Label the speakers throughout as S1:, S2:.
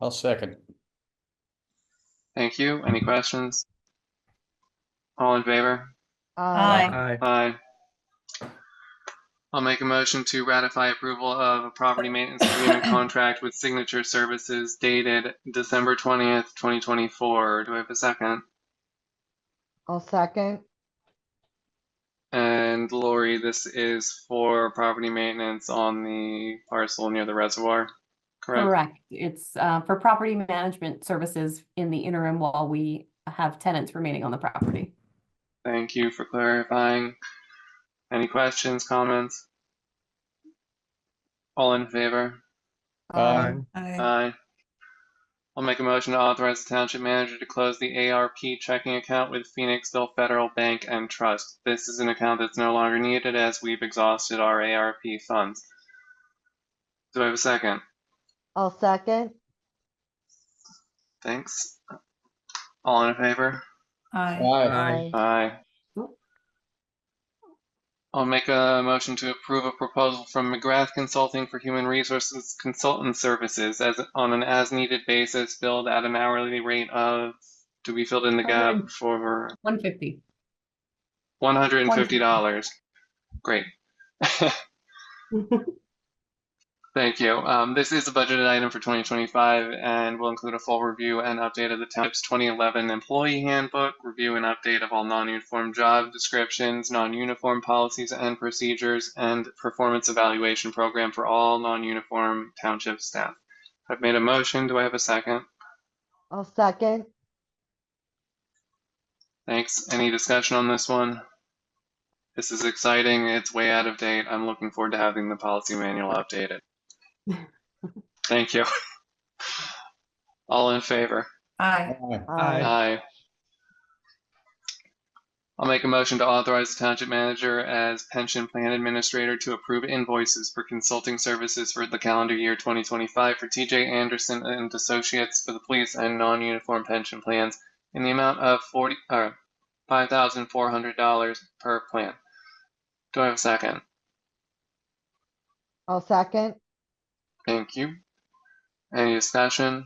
S1: I'll second.
S2: Thank you. Any questions? All in favor?
S3: Aye.
S4: Aye.
S2: Aye. I'll make a motion to ratify approval of a property maintenance agreement contract with Signature Services dated December 20th, 2024. Do I have a second?
S3: I'll second.
S2: And Lori, this is for property maintenance on the parcel near the reservoir, correct?
S5: Correct. It's uh, for property management services in the interim while we have tenants remaining on the property.
S2: Thank you for clarifying. Any questions, comments? All in favor?
S1: Aye.
S3: Um,
S2: Aye. I'll make a motion to authorize the township manager to close the ARP checking account with Phoenixville Federal Bank and Trust. This is an account that's no longer needed as we've exhausted our ARP funds. Do I have a second?
S3: I'll second.
S2: Thanks. All in favor?
S6: Aye.
S1: Aye.
S2: Aye.
S5: Cool.
S2: I'll make a motion to approve a proposal from McGrath Consulting for Human Resources Consultant Services as, on an as-needed basis billed at an hourly rate of, do we fill in the gap for
S5: 150.
S2: One hundred and fifty dollars. Great. Thank you. Um, this is a budgeted item for twenty twenty-five and will include a full review and update of the township's twenty eleven employee handbook, review and update of all non-uniform job descriptions, non-uniform policies and procedures, and performance evaluation program for all non-uniform township staff. I've made a motion. Do I have a second?
S3: I'll second.
S2: Thanks. Any discussion on this one? This is exciting. It's way out of date. I'm looking forward to having the policy manual updated. Thank you. All in favor?
S6: Aye.
S1: Aye.
S4: Aye.
S2: Aye. I'll make a motion to authorize the township manager as pension plan administrator to approve invoices for consulting services for the calendar year 2025 for TJ Anderson and Associates for the police and non-uniform pension plans in the amount of 40, or $5,400 per plan. Do I have a second?
S3: I'll second.
S2: Thank you. Any discussion?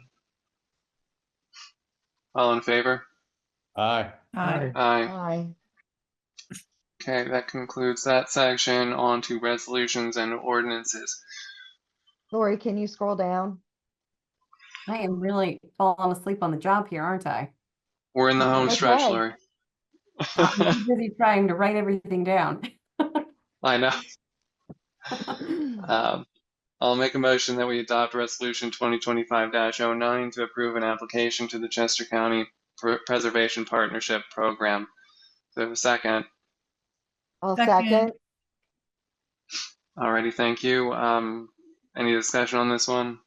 S2: All in favor?
S1: Aye.
S6: Aye.
S2: Aye.
S3: Aye.
S2: Okay, that concludes that section. On to resolutions and ordinances.
S3: Lori, can you scroll down?
S5: I am really falling asleep on the job here, aren't I?
S2: We're in the home stretch,
S3: Okay.
S2: Lori.
S5: I'm too busy trying to write everything down.
S2: I know. Um, I'll make a motion that we adopt Resolution 2025-09 to approve an application to the Chester County Pr- Preservation Partnership Program. Do I have a second?
S3: I'll
S6: Second.
S3: second.
S2: Alrighty, thank you. Um, any discussion on this one?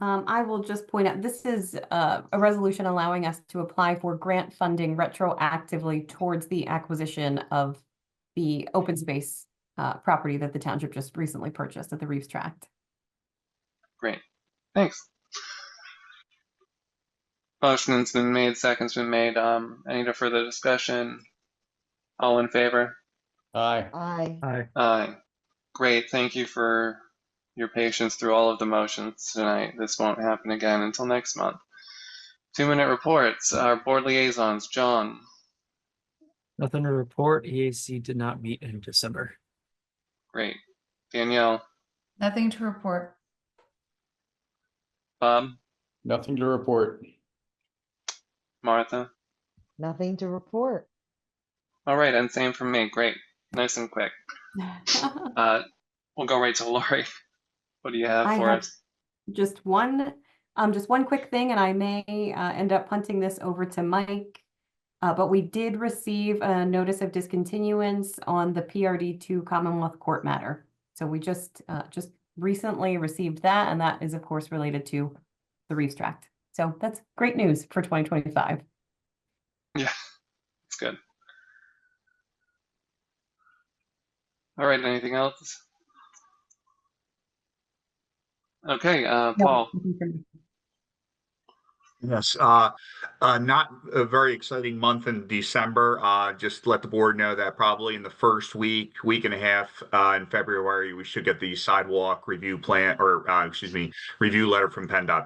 S5: Um, I will just point out, this is uh, a resolution allowing us to apply for grant funding retroactively towards the acquisition of the open space uh, property that the township just recently purchased at the Reeves Tract.
S2: Thanks. Motion's been made, second's been made. Um, any further discussion? All in favor?
S1: Aye.
S3: Aye.
S4: Aye.
S2: Uh, great. Thank you for your patience through all of the motions tonight. This won't happen again until next month. Two minute reports. Our board liaisons, John.
S4: Nothing to report. EAC did not meet in December.
S2: Great. Danielle,
S6: Nothing to report.
S2: Bob,
S1: Nothing to report.
S2: Martha.
S3: Nothing to report.
S2: All right, and same from me. Great. Nice and quick. Uh, we'll go right to Lori. What do you have
S5: I
S2: for
S5: have-
S2: us?
S5: just one, um, just one quick thing, and I may, uh, end up punting this over to Mike. Uh, but we did receive a notice of discontinuance on the PRD two Commonwealth Court matter. So we just, uh, just recently received that, and that is of course related to the Reeves Tract. So that's great news for twenty twenty-five.
S2: It's good. All right, anything else? Okay, uh, Paul.
S7: Yes, uh, uh, not a very exciting month in December. Uh, just to let the board know that probably in the first week, week and a half, uh, in February, we should get the sidewalk review plan, or, uh, excuse me, review letter from PennDOT